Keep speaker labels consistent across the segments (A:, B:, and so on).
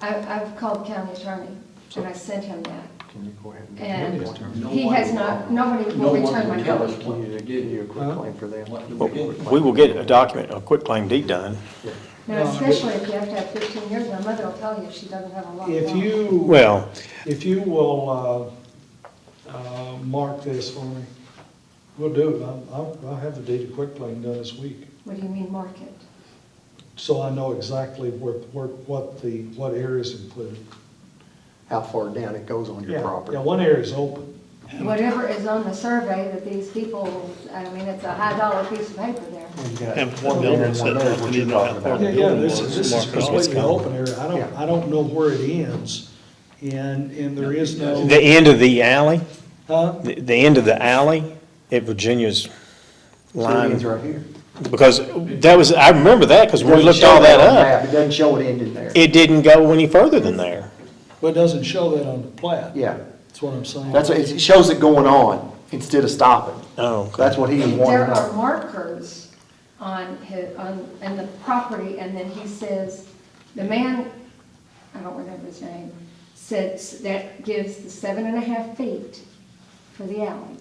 A: I, I've called county attorney, and I sent him that.
B: Can you go ahead
A: And
B: and?
A: he has not, nobody will return my
C: No one will tell us
A: call.
C: what
B: You
C: to
B: give you a
C: do.
B: quick claim for them.
C: What do
D: Well,
C: we do?
D: We will get a document, a quick claim deed done.
A: Now, especially if you have to have fifteen years, my mother will tell you she doesn't have a lot.
E: If
A: left.
E: you,
D: Well,
E: if you will, uh, uh, mark this for me, we'll do it. I'm- I'll, I'll have the deed of quick claim done this week.
A: What do you mean market?
E: So I know exactly where, where, what the, what area's included.
B: How far down it goes on your
E: Yeah,
B: property.
E: Yeah, one area's open.
A: Whatever is on the survey that these people, I mean, it's a high dollar piece of paper there.
F: And one building set
B: And
F: up,
B: there's
F: we
B: what
F: didn't
B: you're
F: know how
B: talking
F: far
B: about.
F: the
E: Yeah, yeah,
F: building
E: this is,
F: was.
E: this
F: mark
E: is
F: it off as
E: completely
F: common.
E: open area. I don't,
B: Yeah.
E: I don't know where it ends, and, and there is no,
D: the end of the alley,
E: huh?
D: the, the end of the alley at Virginia's
B: So it
D: line,
B: ends right here.
D: because that was, I remember that, because we looked all that up.
B: It doesn't show it ended there.
D: It didn't go any further than there.
E: But it doesn't show that on the plat.
B: Yeah,
E: That's what I'm saying.
B: that's, it shows it going on instead of stopping.
D: Oh, okay.
B: That's what he was
A: There
B: wanting to
A: are
B: know.
A: markers on his, on, in the property, and then he says, the man, I don't remember his name, says that gives the seven and a half feet for the alley.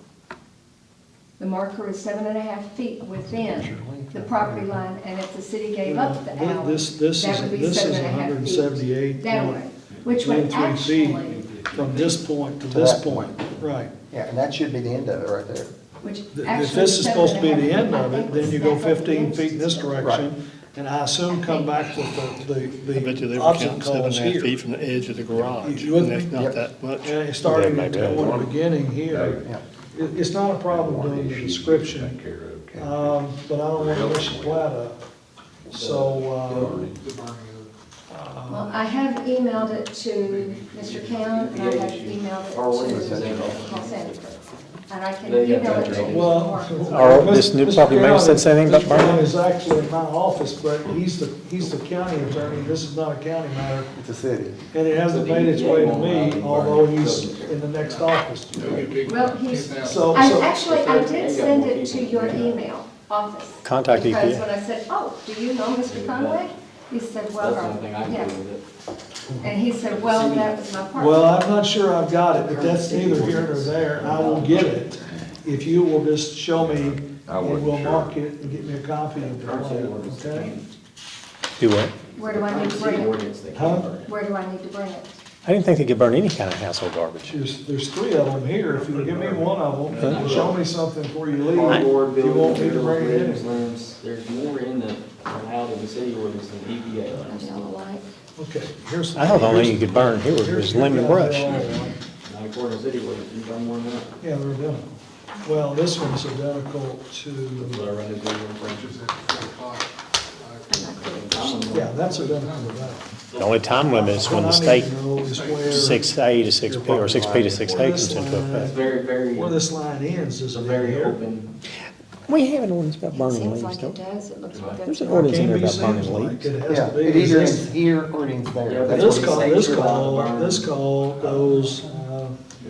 A: The marker is seven and a half feet within the property line, and if the city gave up the
E: Well,
A: alley,
E: this- this
A: that
E: is-
A: would be
E: this is
A: seven and a half feet
E: 178
A: That
E: point
A: way, which would
E: Then three feet
A: actually,
E: From this point to
B: To
E: this
B: that
E: point, right.
B: Yeah, and that should be the end of it right there.
A: which actually.
E: If this is supposed to be the end of it, then you go fifteen feet in this
A: direction.
E: direction, and I assume come back with the,
F: I bet you
E: the,
F: they
E: the
F: were counting
E: obstacle
F: seven
E: is
F: and a half
E: here.
F: feet from the edge of the garage,
E: You wouldn't
F: and that's
E: be-
F: not
B: Yep.
F: that much.
E: And starting
D: Yeah,
E: at
D: maybe
E: the
D: that
E: one beginning here,
B: Yeah.
E: it, it's not a problem doing the description, um, but I don't wanna mess the plat up. So, uh,
A: Well, I have emailed it to Mr. Cam, and I have emailed it to Paul Sanford. And I can email it to
E: uh,
A: you
E: well.
A: tomorrow.
D: Or this new
E: Mr.
D: property manager said
E: Brown-
D: something about
E: Mr. Brown
D: burning?
E: is actually in my office, but he's the, he's the county attorney, this is not a county matter.
B: It's a city.
E: And it hasn't made its way to me, although he's in the next office.
A: Well, he's,
E: So,
A: I
E: so,
A: actually, I did send it to your email office.
D: Contact E
A: Because
D: EPA.
A: when I said, oh, do you know Mr. Conway? He said,
C: That's
A: well,
C: the only thing I
A: yeah.
C: can do with
A: And he said, well, that was my part.
E: well, I'm not sure I've got it, but that's neither here nor there, I will get it. If you will just show me, and we'll mark it and get me a copy of
C: it.
E: it,
C: Current city ordinance, they
E: okay?
C: can't-
D: Do what?
A: Where do I need
C: current
A: to
C: city
A: bring it?
C: ordinance, they
E: Huh?
C: can't burn it.
A: Where do I need to bring it?
D: I didn't think they could burn any kind of household garbage.
E: There's, there's three of them here, if you'll give me one of them, and show me something before you leave.
C: Cardboard
E: If you want me to
C: buildings,
E: bring it
C: rooms,
E: in.
C: rooms, there's more in the, allowed in the city ordinance than E EPA.
A: I
C: allows.
A: don't like.
E: Okay, here's.
D: I thought the only thing you could burn here
E: here's-
D: was lemon
E: here's-
D: brush.
C: Not according to city ordinance, you've done more than that.
E: Yeah, they're identical. Well, this one's identical to,
C: Will I run into you in French?
E: yeah, that's identical to that.
D: The only time limit is when the state, six A to six P, or six P to six A comes into
C: It's
D: effect.
C: very, very,
E: Where
C: it's
E: this line ends is
C: a
E: a
C: very
E: very open.
C: open,
D: We have an ordinance about
A: It
D: burning
A: seems
D: leaves,
A: like it
D: don't we?
A: does, it looks like
D: There's
A: that's.
D: an ordinance in
E: Can't
D: there
E: be
D: about burning
E: seems like
D: leaves.
E: it has
B: Yeah,
E: to be.
B: it either
E: This-
B: ends here or it ends
C: Yeah,
B: there.
C: but
B: That's
E: This
B: what he
E: call,
B: said.
E: this
C: You're allowed to
E: call,
C: burn.
E: this call goes, uh,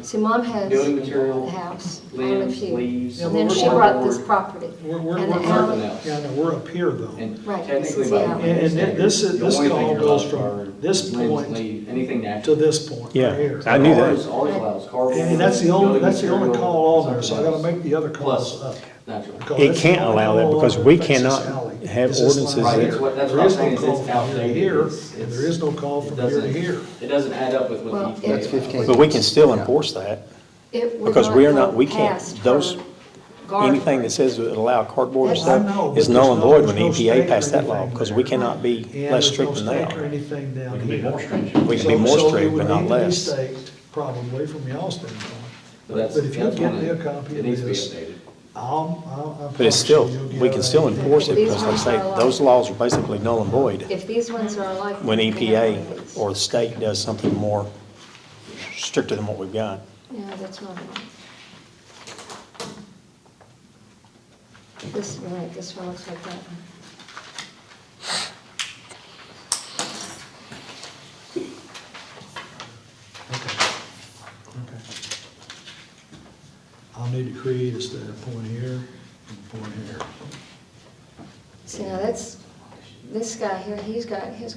G: See, mom has
C: Building
G: a
C: material,
G: house on a
C: limbs,
G: few,
C: leaves.
E: Yeah,
G: and then
E: we're-
G: she brought this
C: cardboard,
G: property.
E: we're, we're,
G: And the
E: we're,
G: alley-
C: alley.
E: yeah, no, we're up here though.
C: And
G: Right, this
C: technically
G: is
C: by
G: the
C: the
G: alley.
E: And- and
C: standard,
E: this is-
C: the
E: this
C: only thing
E: call
C: you're
E: goes
C: allowed
E: from
C: to burn
E: this
C: is limbs,
E: point
C: leaves, Anything natural.
E: To this point, right
D: Yeah,
E: here.
D: I knew
C: Ours-
D: that.
C: Ours allows cardboard.
E: And that's the only,
C: building
E: that's the only
C: material,
E: call on there, so I
C: something
E: gotta
C: else.
E: make the other calls up.
C: Plus, natural.
E: Because
D: It
E: that's the
D: can't
E: only
D: allow that
E: call on
D: because
E: there
D: we
E: affects this
D: cannot
E: alley,
D: have
E: is this line
D: ordinances
E: right
D: that-
E: here.
C: That's what- that's
E: There
C: what I'm
E: is no
C: saying, is
E: call
C: it's
E: from here to
C: outdated.
E: here,
C: It's-
E: and
C: it's-
E: there is no call
C: It
E: from here to
C: doesn't,
E: here.
C: it doesn't add up with
G: Well,
C: what EPA.
B: That's
C: allows.
B: 15.
D: But we can still enforce that.
G: It would
D: Because
G: not
D: we are
G: go
D: not- we can't-
G: past her
D: those-
G: garden.
D: Anything that says we allow cardboard and
E: Well, I know,
D: stuff
E: but
D: is null and
E: there's no-
D: void when the
E: there's no stake
D: EPA
E: or
D: E passed that law,
E: anything
D: because
E: there.
D: we cannot be
E: And
D: less
E: there's no
D: strict than they
E: stake Or
D: are.
E: anything down
F: It'd be
E: here.
F: more stringent.
D: We can be more
E: So- so it
D: strict,
E: would
D: but not
E: need to be
D: less.
E: staked Probably from y'all's standpoint.
C: But that's-
E: But if you
C: that's
E: give
C: one
E: me a
C: of-
E: copy
C: It
E: of
C: needs to be
E: this,
C: updated.
E: I'll, I'll. I'll
D: But
E: promise
D: it's
E: you
D: still,
E: you'll get
D: we can still
E: everything.
D: enforce it because they say those laws are basically null and void
G: If these ones are like.
D: when EPA or the state does something more stricter than what we've got.
G: No, that's not right. This, right, this one looks like that one.
E: Okay. I'll need to create a stat point here and point here.
G: See, now that's, this guy here, he's got his